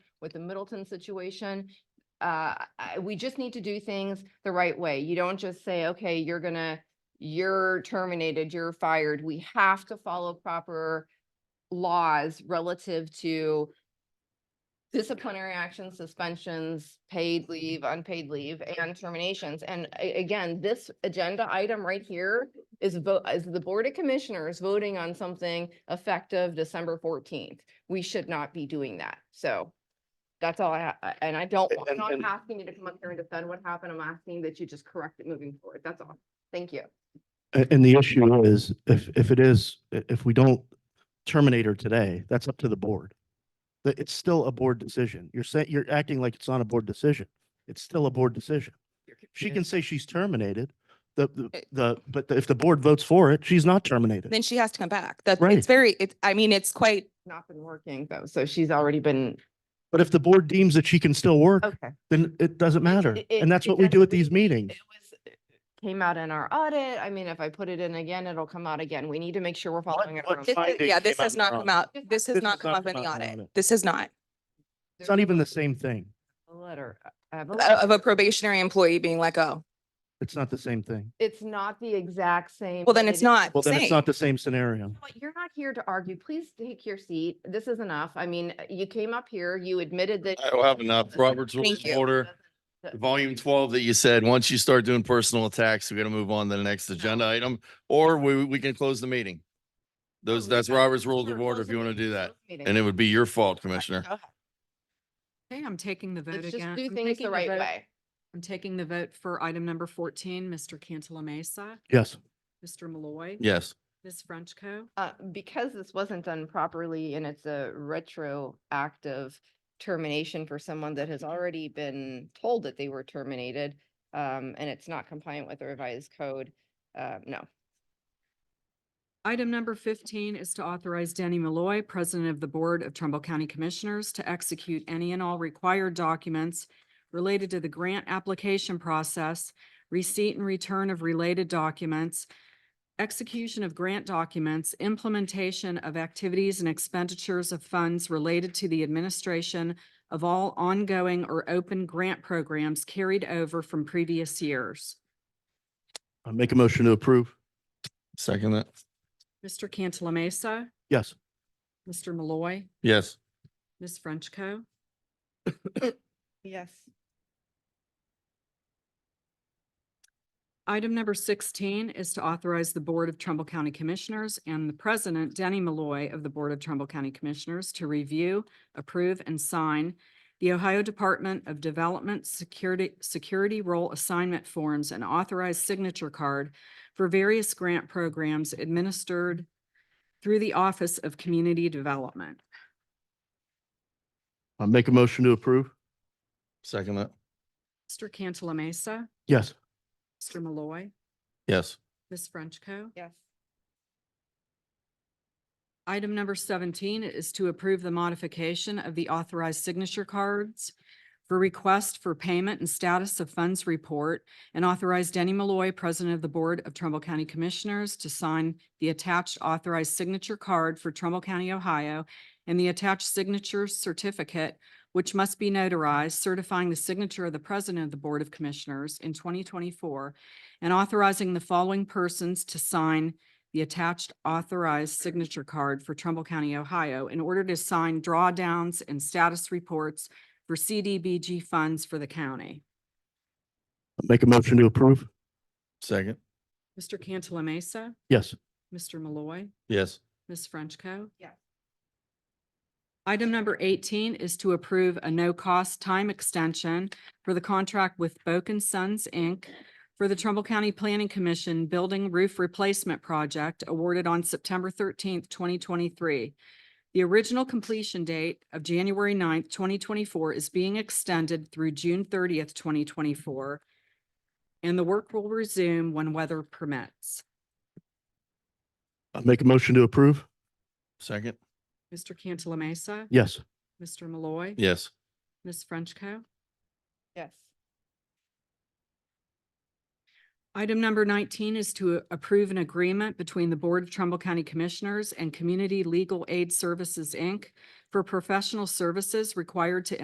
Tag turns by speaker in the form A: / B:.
A: with the Middleton situation. Uh, I, we just need to do things the right way. You don't just say, okay, you're gonna, you're terminated, you're fired. We have to follow proper laws relative to disciplinary actions, suspensions, paid leave, unpaid leave, and terminations. And a- again, this agenda item right here is vote, is the Board of Commissioners voting on something effective December fourteenth. We should not be doing that. So that's all I, ha- I- and I don't, I'm
B: And-
A: not
B: and-
A: asking you to come up here and defend what happened. I'm asking that you just correct it moving forward. That's all. Thank you.
B: A- And the issue is, if, if it is, i- if we don't terminate her today, that's up to the board. That it's still a board decision. You're saying, you're acting like it's not a board decision. It's still a board decision. She can say she's terminated, the, the,
C: It-
B: the, but if the board votes for it, she's not terminated.
C: Then she has to come back. That,
B: Right.
C: it's very, it, I mean, it's quite,
A: Not been working though, so she's already been,
B: But if the board deems that she can still work,
A: okay.
B: then Oh. it doesn't matter.
A: it- it-
B: And that's
A: it
B: what we do
A: doesn't
B: at these
A: really-
B: meetings.
A: It was, it came out in our audit. I mean, if I put it in again, it'll come out again. We need to make sure we're following it.
B: what
C: this is-
B: finding
C: yeah,
B: came
C: this
B: out
C: has
B: in
C: not
B: our
C: come out,
A: This
C: this has
B: has
C: not come
B: not
C: up in
B: come
C: the
B: out in our
C: audit.
B: audit.
C: This is not
B: It's not even the same thing.
A: A letter. I have a
C: uh,
A: letter.
C: of a probationary employee being let go.
B: It's not the same thing.
A: It's not the exact same.
C: Well, then
A: but
C: it's
A: it-
C: not
B: Well, then it's
C: same.
B: not the same scenario.
A: But You're not here to argue. Please take your seat. This is enough. I mean, you came up here, you admitted that.
D: I don't have enough. Robert's Rules
C: Thank
D: of
C: you.
D: Order, volume twelve that you said, once you start doing personal attacks, we gotta move on to the next agenda item, or we, we can close the meeting. Those, that's Robert's Rules of Order if you want to do that. And it would be your fault, Commissioner.
E: Okay, I'm taking the vote
A: Let's
E: again.
A: just do
E: I'm
A: things
E: taking
A: the right
E: vote-
A: way.
E: I'm taking the vote for item number fourteen, Mr. Cantala Mesa,
B: Yes.
E: Mr. Malloy.
D: Yes.
E: Ms. Frenchco.
A: uh, because this wasn't done properly and it's a retroactive termination for someone that has already been told that they were terminated, um, and it's not compliant with the revised code, uh, no.
E: Item number fifteen is to authorize Danny Malloy, President of the Board of Trumbull County Commissioners, to execute any and all required documents related to the grant application process, receipt and return of related documents, execution of grant documents, implementation of activities and expenditures of funds related to the administration of all ongoing or open grant programs carried over from previous years.
B: I make a motion to approve.
D: Second that.
E: Mr. Cantala Mesa,
B: Yes.
E: Mr. Malloy,
D: Yes.
E: Ms. Frenchco.
A: Yes.
E: Item number sixteen is to authorize the Board of Trumbull County Commissioners and the President, Denny Malloy of the Board of Trumbull County Commissioners to review, approve, and sign the Ohio Department of Development Security, Security Role Assignment Forms and authorized signature card for various grant programs administered through the Office of Community Development.
B: I make a motion to approve.
D: Second that.
E: Mr. Cantala Mesa,
B: Yes.
E: Mr. Malloy,
D: Yes.
E: Ms. Frenchco.
A: Yes.
E: Item number seventeen is to approve the modification of the authorized signature cards for request for payment and status of funds report and authorize Denny Malloy, President of the Board of Trumbull County Commissioners, to sign the attached authorized signature card for Trumbull County, Ohio, and the attached signature certificate, which must be notarized, certifying the signature of the President of the Board of Commissioners in twenty twenty-four and authorizing the following persons to sign the attached authorized signature card for Trumbull County, Ohio, in order to sign drawdowns and status reports for CDBG funds for the county.
B: I make a motion to approve.
D: Second.
E: Mr. Cantala Mesa,
B: Yes.
E: Mr. Malloy,
D: Yes.
E: Ms. Frenchco.
A: Yes.
E: Item number eighteen is to approve a no-cost time extension for the contract with Boken Sons, Inc. for the Trumbull County Planning Commission Building Roof Replacement Project awarded on September thirteenth, twenty twenty-three. The original completion date of January 9th, twenty twenty-four is being extended through June thirtieth, twenty twenty-four, and the work will resume when weather permits.
B: I make a motion to approve.
D: Second.
E: Mr. Cantala Mesa,
B: Yes.
E: Mr. Malloy.
D: Yes.
E: Ms. Frenchco.
A: Yes.
E: Item number nineteen is to approve an agreement between the Board of Trumbull County Commissioners and Community Legal Aid Services, Inc. for professional services required to